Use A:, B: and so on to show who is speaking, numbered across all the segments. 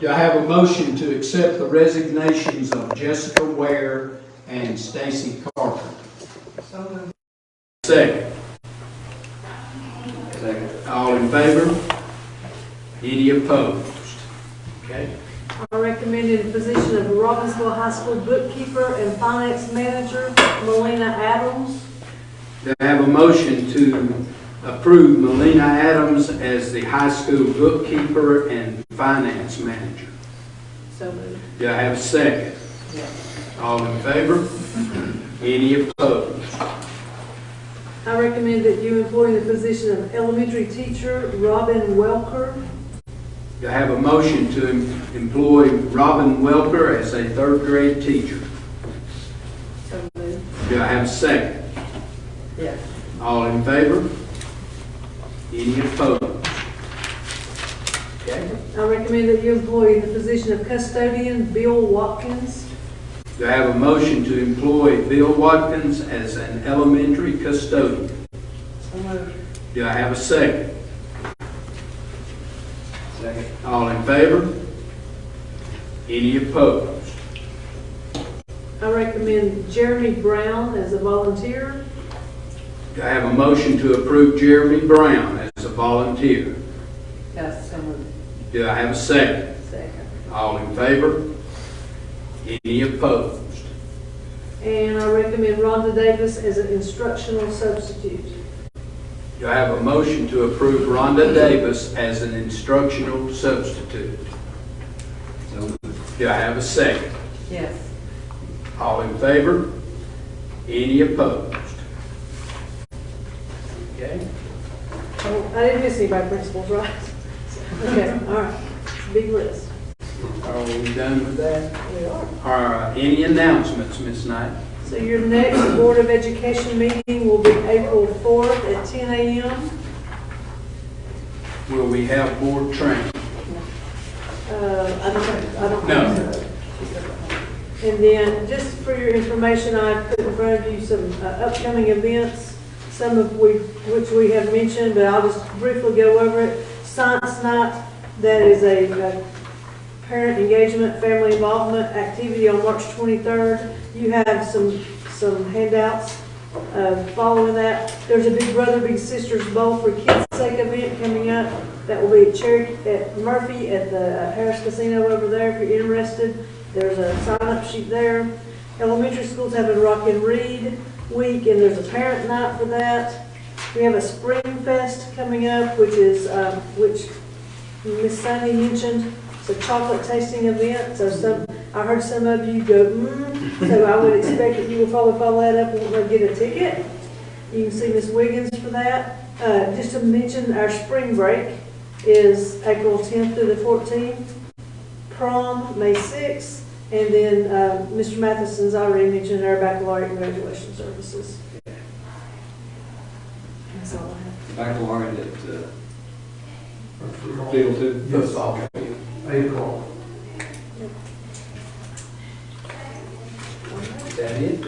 A: Do I have a motion to accept the resignations of Jessica Ware and Stacy Carter? Second. Second. All in favor? Any opposed? Okay.
B: I recommended the position of Robbinsville High School bookkeeper and finance manager, Melina Adams.
A: Do I have a motion to approve Melina Adams as the high school bookkeeper and finance manager?
B: So moved.
A: Do I have a second? All in favor? Any opposed?
B: I recommend that you employ the position of elementary teacher, Robin Welker.
A: Do I have a motion to em- employ Robin Welker as a third grade teacher?
B: So moved.
A: Do I have a second?
B: Yes.
A: All in favor? Any opposed? Okay.
B: I recommend that you employ the position of custodian, Bill Watkins.
A: Do I have a motion to employ Bill Watkins as an elementary custodian?
B: So moved.
A: Do I have a second? Second. All in favor? Any opposed?
B: I recommend Jeremy Brown as a volunteer.
A: Do I have a motion to approve Jeremy Brown as a volunteer?
B: Yes, so moved.
A: Do I have a second?
B: Second.
A: All in favor? Any opposed?
B: And I recommend Rhonda Davis as an instructional substitute.
A: Do I have a motion to approve Rhonda Davis as an instructional substitute? Do I have a second?
B: Yes.
A: All in favor? Any opposed? Okay.
B: Oh, I didn't miss anybody principals, right? Okay, all right, It's a big list.
A: Are we done with that?
B: We are.
A: Are uh, any announcements, Ms. Knight?
B: So your next Board of Education meeting will be April 4th at 10 a.m.
A: Will we have board training?
B: Uh, I don't, I don't.
A: No.
B: And then, just for your information, I put in front of you some uh, upcoming events, some of we, which we have mentioned, but I'll just briefly go over it. Science Night, that is a uh, parent engagement, family involvement activity on March 23rd. You have some, some handouts uh, following that. There's a Big Brother Big Sisters Bowl for Kids' Sake event coming up. That will be at Cherokee, at Murphy, at the Harris Casino over there if you're interested. There's a sign-up sheet there. Elementary schools have a Rock and Read Week, and there's a parent night for that. We have a Spring Fest coming up, which is, um, which Miss Sunny mentioned, it's a chocolate tasting event, so some, I heard some of you go, mmm, so I would expect that you will probably follow that up and go get a ticket. You can see Miss Wiggins for that. Uh, just to mention, our spring break is April tenth through the fourteenth, prom, May sixth, and then, uh, Mr. Matheson's already mentioned our baccalaureate and graduation services. That's all I have.
C: baccalaureate at uh, Field Two.
D: Yes, I'll, April.
A: Is that it?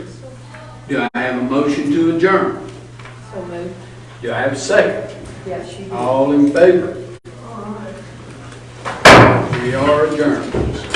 A: Do I have a motion to adjourn?
B: So moved.
A: Do I have a second?
B: Yes, you
A: All in favor? We are adjourned.